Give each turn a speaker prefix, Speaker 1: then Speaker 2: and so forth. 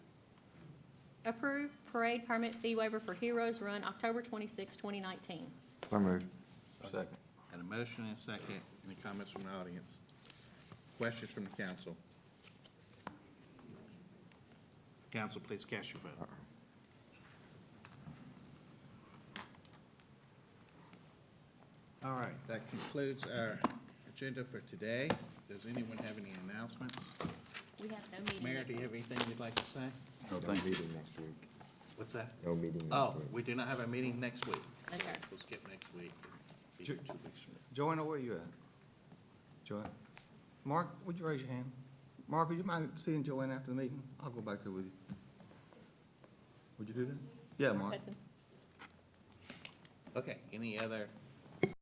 Speaker 1: Approve parade permit fee waiver for Heroes Run, October 26, 2019.
Speaker 2: So moved. Second.
Speaker 3: Got a motion and a second. Any comments from the audience? Questions from the council? Council, please cast your
Speaker 4: Uh,
Speaker 3: vote. All right, that concludes our agenda for today. Does anyone have any announcements?
Speaker 1: We have no meeting
Speaker 3: Mayor,
Speaker 1: next
Speaker 3: do you
Speaker 1: week.
Speaker 3: have anything you'd like to say?
Speaker 2: No, thank you. Meeting next week.
Speaker 3: What's that?
Speaker 2: No meeting
Speaker 3: Oh,
Speaker 2: next week.
Speaker 3: we do not have a meeting next week.
Speaker 1: Okay.
Speaker 3: We'll skip next week. Be
Speaker 4: Ju-
Speaker 3: two weeks from now.
Speaker 4: Joanna, where you at? Joanna? Mark, would you raise your hand? Mark, would you mind seeing Joanna after the meeting? I'll go back there with you. Would you do that? Yeah, Mark.
Speaker 1: Hudson.
Speaker 3: Okay, any other